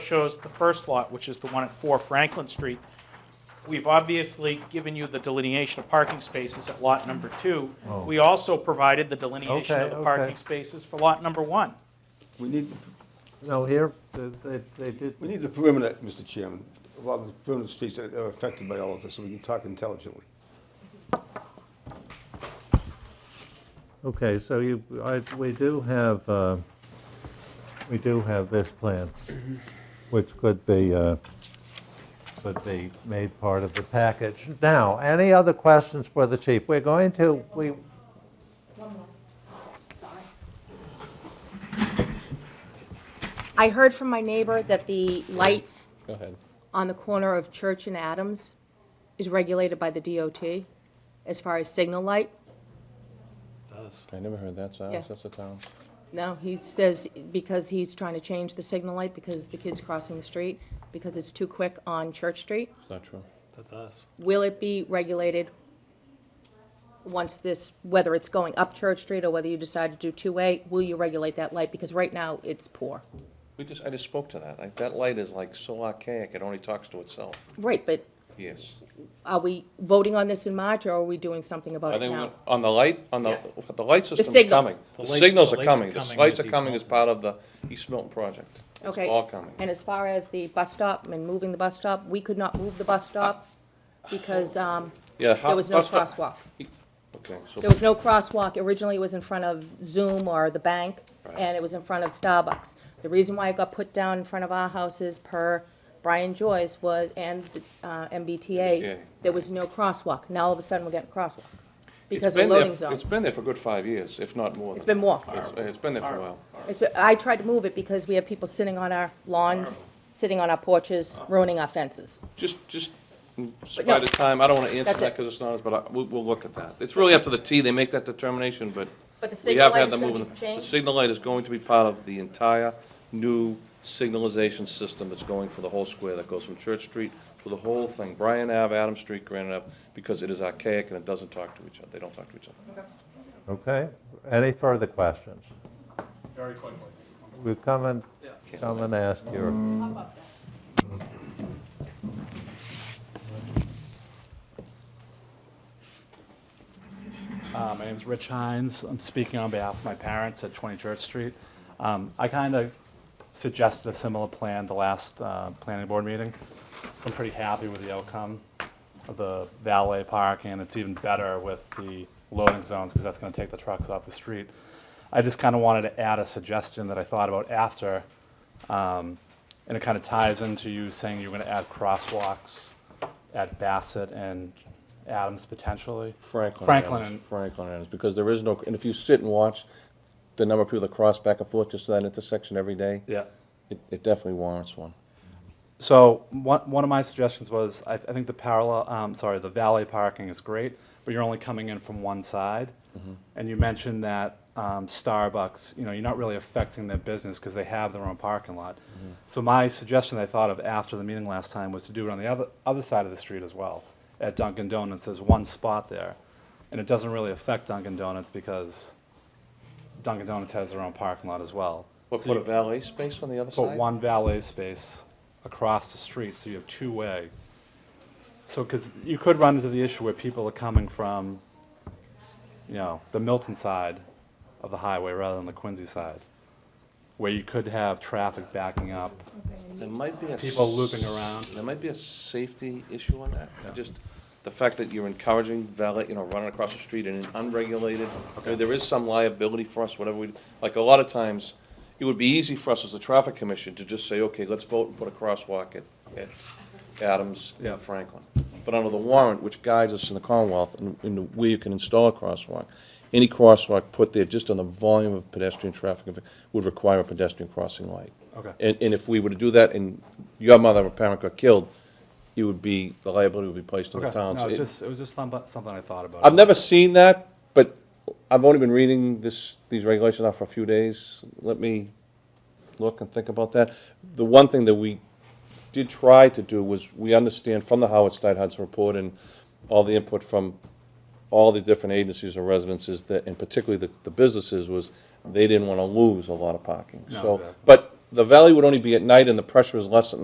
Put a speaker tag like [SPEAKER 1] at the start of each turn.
[SPEAKER 1] shows the first lot, which is the one at 4 Franklin Street. We've obviously given you the delineation of parking spaces at lot number two. We also provided the delineation of
[SPEAKER 2] Oh. Okay,
[SPEAKER 1] the
[SPEAKER 2] okay.
[SPEAKER 1] parking spaces for lot number one.
[SPEAKER 3] We need,
[SPEAKER 2] No, here, they, they- they did,
[SPEAKER 3] we need the perimeter, Mr. Chairman, a lot of the perimeter streets that are affected by all of this, so we can talk intelligently.
[SPEAKER 2] okay, so you, I, we do have, uh, we do have this plan, which could be, uh, could be made part of the package. Now, any other questions for the chief? We're going to, we,
[SPEAKER 4] I heard from my neighbor that the light
[SPEAKER 5] Go ahead.
[SPEAKER 4] on the corner of Church and Adams is regulated by the DOT as far as signal light.
[SPEAKER 5] I never heard that, so
[SPEAKER 4] Yeah.
[SPEAKER 5] that's a town.
[SPEAKER 4] No, he says because he's trying to change the signal light because the kid's crossing the street, because it's too quick on Church Street.
[SPEAKER 5] It's not true.
[SPEAKER 6] That's us.
[SPEAKER 4] Will it be regulated once this, whether it's going up Church Street or whether you decide to do two-way, will you regulate that light? Because right now, it's poor.
[SPEAKER 7] We just, I just spoke to that. Like, that light is like so archaic, it only talks to itself.
[SPEAKER 4] Right, but
[SPEAKER 7] Yes.
[SPEAKER 4] are we voting on this in March or are we doing something about
[SPEAKER 7] I
[SPEAKER 4] it
[SPEAKER 7] think,
[SPEAKER 4] now?
[SPEAKER 7] we're- on the light, on the, the light system's
[SPEAKER 4] signal.
[SPEAKER 7] coming.
[SPEAKER 6] The
[SPEAKER 7] The
[SPEAKER 6] light-
[SPEAKER 7] signals
[SPEAKER 6] the
[SPEAKER 7] are
[SPEAKER 6] lights are
[SPEAKER 7] coming. The
[SPEAKER 6] coming
[SPEAKER 7] lights are
[SPEAKER 6] with East
[SPEAKER 7] coming as
[SPEAKER 6] Milton.
[SPEAKER 7] part of the East Milton project. It's
[SPEAKER 4] Okay.
[SPEAKER 7] all coming.
[SPEAKER 4] And as far as the bus stop and moving the bus stop, we could not move the bus stop because um,
[SPEAKER 7] Yeah. how-
[SPEAKER 4] there was no
[SPEAKER 7] Oh. bus stop-
[SPEAKER 4] crosswalk.
[SPEAKER 7] Okay, so
[SPEAKER 4] There was no crosswalk. Originally, it was in front of Zoom or the bank, and it was in front of Starbucks. The reason why it got put down in front of our houses per Brian Joyce was, and uh, MBTA,
[SPEAKER 7] MBTA,
[SPEAKER 4] there was no crosswalk. Now, all of a sudden, we're getting a crosswalk
[SPEAKER 7] it's
[SPEAKER 4] because of the
[SPEAKER 7] been there-
[SPEAKER 4] loading zone.
[SPEAKER 7] It's been there for a good five years, if not more.
[SPEAKER 4] It's
[SPEAKER 7] than-
[SPEAKER 4] been more.
[SPEAKER 7] It's- It's been there for a while.
[SPEAKER 4] It's been- I tried to move it because we have people sitting on our lawns, sitting on our porches, ruining our fences.
[SPEAKER 7] Just, just, in
[SPEAKER 4] no,
[SPEAKER 7] spite of time, I don't want to answer
[SPEAKER 4] that's
[SPEAKER 7] that
[SPEAKER 4] it.
[SPEAKER 7] because it's not, us, but I- we'll, we'll look at that. It's really up to the T, they make that determination, but
[SPEAKER 4] But the
[SPEAKER 7] we
[SPEAKER 4] signal
[SPEAKER 7] have
[SPEAKER 4] light
[SPEAKER 7] had
[SPEAKER 4] is
[SPEAKER 7] them
[SPEAKER 4] gonna
[SPEAKER 7] moving.
[SPEAKER 4] be
[SPEAKER 7] The
[SPEAKER 4] changed?
[SPEAKER 7] signal light is going to be part of the entire new signalization system that's going for the whole square, that goes from Church Street to the whole thing, Bryan Ave, Adams Street, Granite Ave, because it is archaic and it doesn't talk to each other, they don't talk to each other.
[SPEAKER 2] okay, any further questions?
[SPEAKER 6] Very quickly.
[SPEAKER 2] We come and, come and ask your,
[SPEAKER 6] Uh, my name's Rich Hines. I'm speaking on behalf of my parents at 20 Church Street. Um, I kind of suggested a similar plan the last uh, planning board meeting. I'm pretty happy with the outcome of the valet park, and it's even better with the loading zones because that's going to take the trucks off the street. I just kind of wanted to add a suggestion that I thought about after, um, and it kind of ties into you saying you're going to add crosswalks at Bassett and Adams potentially.
[SPEAKER 5] Franklin.
[SPEAKER 6] Franklin
[SPEAKER 5] Adams,
[SPEAKER 6] and
[SPEAKER 5] Franklin Adams, because there is no, and if you sit and watch the number of people that cross back and forth just to that intersection every day,
[SPEAKER 6] Yeah.
[SPEAKER 5] it, it definitely warrants one.
[SPEAKER 6] So one, one of my suggestions was, I, I think the parallel, um, sorry, the valet parking is great, but you're only coming in from one side. And you mentioned that um, Starbucks, you know, you're not really affecting their business because they have their own parking lot. So my suggestion I thought of after the meeting last time was to do it on the other, other side of the street as well, at Dunkin' Donuts. There's one spot there. And it doesn't really affect Dunkin' Donuts because Dunkin' Donuts has their own parking lot as well.
[SPEAKER 7] What,
[SPEAKER 6] So
[SPEAKER 7] put
[SPEAKER 6] you-
[SPEAKER 7] a valet space on the other side?
[SPEAKER 6] Put one valet space across the street, so you have two-way. So, because you could run into the issue where people are coming from, you know, the Milton side of the highway rather than the Quincy side, where you could have traffic backing up.
[SPEAKER 7] There might be a.
[SPEAKER 6] People
[SPEAKER 7] s-
[SPEAKER 6] looping around.
[SPEAKER 7] There might be a safety issue on that, just the fact that you're encouraging valet, you know, running across the street in an unregulated, I mean, there is some liability for us, whatever we, like, a lot of times, it would be easy for us as the traffic commission to just say, okay, let's vote and put a crosswalk at, at Adams
[SPEAKER 6] Yeah.
[SPEAKER 7] and Franklin. But under the warrant, which guides us in the Commonwealth, and, and where you can install a crosswalk, any crosswalk put there just on the volume of pedestrian traffic would require a pedestrian crossing light.
[SPEAKER 6] Okay.
[SPEAKER 7] And, and if we were to do that and your mother or parent got killed, it would be, the liability would be placed on the
[SPEAKER 6] Okay,
[SPEAKER 7] towns.
[SPEAKER 6] No, it was
[SPEAKER 7] It-
[SPEAKER 6] just, it was just some- something I thought about.
[SPEAKER 7] I've never seen that, but I've only been reading this, these regulations now for a few days. Let me look and think about that. The one thing that we did try to do was, we understand from the Howard Stein Hudson report and all the input from all the different agencies and residences that, and particularly the, the businesses, was they didn't want to lose a lot of parking.
[SPEAKER 6] No,
[SPEAKER 7] So,
[SPEAKER 6] exactly.
[SPEAKER 7] but the valley would only be at night and the pressure is less at